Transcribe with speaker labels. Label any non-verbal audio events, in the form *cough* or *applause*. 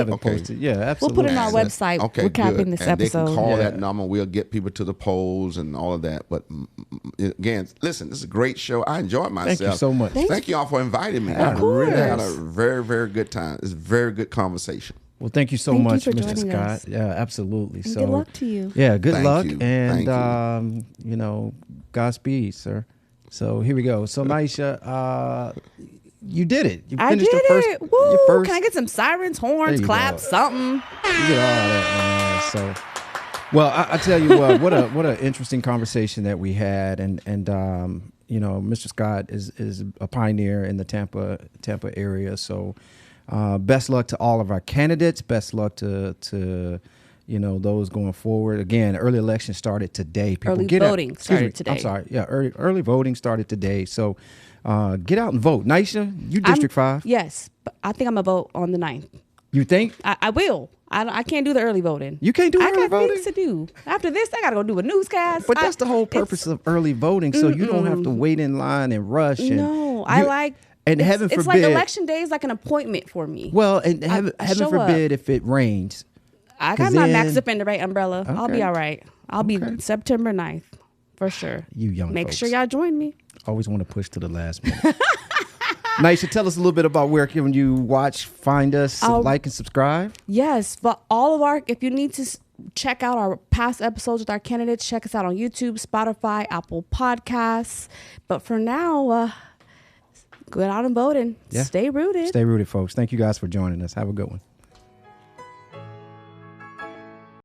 Speaker 1: haven't
Speaker 2: Okay.
Speaker 1: posted. Yeah,
Speaker 3: We'll
Speaker 1: absolutely.
Speaker 3: put it on our
Speaker 1: So-
Speaker 3: website.
Speaker 2: Okay,
Speaker 3: We're copying
Speaker 2: good.
Speaker 3: this
Speaker 2: and They
Speaker 3: episode.
Speaker 2: can call that
Speaker 1: Yeah.
Speaker 2: number. We'll get people to the polls and all of that. But mm, mm, again, listen, this is a great show. I enjoyed myself.
Speaker 1: so much.
Speaker 2: Thank,
Speaker 1: Thank
Speaker 2: you all for inviting me. I
Speaker 1: Of
Speaker 2: really had a
Speaker 3: course.
Speaker 2: very, very good time. It's a very good conversation.
Speaker 1: Well, thank you so
Speaker 3: Thank you
Speaker 1: much,
Speaker 3: for
Speaker 1: Mr.
Speaker 3: joining
Speaker 1: Scott.
Speaker 3: us.
Speaker 1: Yeah, absolutely.
Speaker 3: And
Speaker 1: so
Speaker 3: good luck to you.
Speaker 1: Yeah, good
Speaker 2: Thank
Speaker 1: luck
Speaker 2: you. Thank
Speaker 1: and
Speaker 2: you.
Speaker 1: um, you know, Godspeed, sir. So here we go. So Maisha, uh, you did it. You
Speaker 3: I did
Speaker 1: your first,
Speaker 3: it. Woo!
Speaker 1: Your first,
Speaker 3: Can I get some sirens,
Speaker 1: There
Speaker 3: horns,
Speaker 1: you
Speaker 3: claps,
Speaker 1: go.
Speaker 3: something?
Speaker 1: you did all that, man. So well, I, I tell you what, what a what an interesting conversation that we had, and and um, you know, Mr. Scott is is a pioneer in the Tampa Tampa area. So, uh, best luck to all of our candidates. Best luck to to you know those going forward. Again, early election started today. People
Speaker 3: Early
Speaker 1: out-
Speaker 3: voting
Speaker 1: excuse
Speaker 3: started
Speaker 1: me,
Speaker 3: today.
Speaker 1: I'm sorry. Yeah, early early voting started today. So, uh, get out and vote. Nisha, you
Speaker 3: I'm-
Speaker 1: District Five.
Speaker 3: Yes, but I think I'm gonna vote on the 9th.
Speaker 1: You think
Speaker 3: I, I will. I, don't- I can't do the early voting.
Speaker 1: You can't do
Speaker 3: I
Speaker 1: early
Speaker 3: got
Speaker 1: voting?
Speaker 3: things to do. After this, I gotta go do a newscast.
Speaker 1: But
Speaker 3: I-
Speaker 1: that's the whole
Speaker 3: it's-
Speaker 1: purpose of early voting, so you don't have to wait in line and rush. And
Speaker 3: No, I
Speaker 1: you-
Speaker 3: like.
Speaker 1: And
Speaker 3: it's,
Speaker 1: heaven
Speaker 3: it's
Speaker 1: forbid.
Speaker 3: like election day is like an appointment for me.
Speaker 1: Well, and heaven,
Speaker 3: I
Speaker 1: heaven
Speaker 3: show up.
Speaker 1: forbid if it rains.
Speaker 3: I
Speaker 1: 'cause
Speaker 3: got my Max
Speaker 1: then-
Speaker 3: up in the right umbrella. I'll
Speaker 1: Okay.
Speaker 3: be all right. I'll
Speaker 1: Okay.
Speaker 3: be September 9th for sure.
Speaker 1: You young
Speaker 3: Make sure
Speaker 1: folks.
Speaker 3: y'all join me.
Speaker 1: Always want to push to the last minute.
Speaker 3: *laughs*
Speaker 1: Nisha, tell us a little bit about where can you watch, find us,
Speaker 3: Um,
Speaker 1: like and subscribe.
Speaker 3: Yes, but all of our if you need to s- check out our past episodes with our candidates, check us out on YouTube, Spotify, Apple Podcasts. But for now, uh, go out and vote and
Speaker 1: Yeah.
Speaker 3: stay rooted.
Speaker 1: Stay rooted, folks. Thank you guys for joining us. Have a good one.